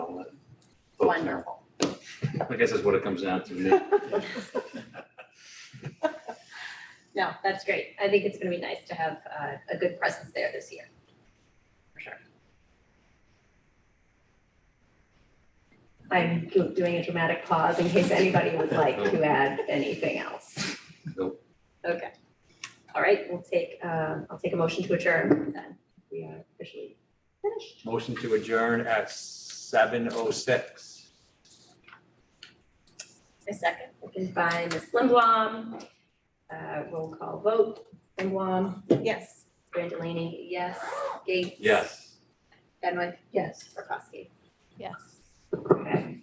folks now. Wonderful. I guess that's what it comes down to. Nick. No, that's great. I think it's gonna be nice to have uh, a good presence there this year. For sure. I'm do- doing a dramatic pause in case anybody would like to add anything else. Nope. Okay. All right, we'll take, uh, I'll take a motion to adjourn then. We are officially finished. Motion to adjourn at seven oh six. A second. Second by Ms. Limblom. Uh, Roll call vote. Limblom. Yes. Brandolini, yes. Gates. Yes. Benwick? Yes. Prokowski? Yes. Okay.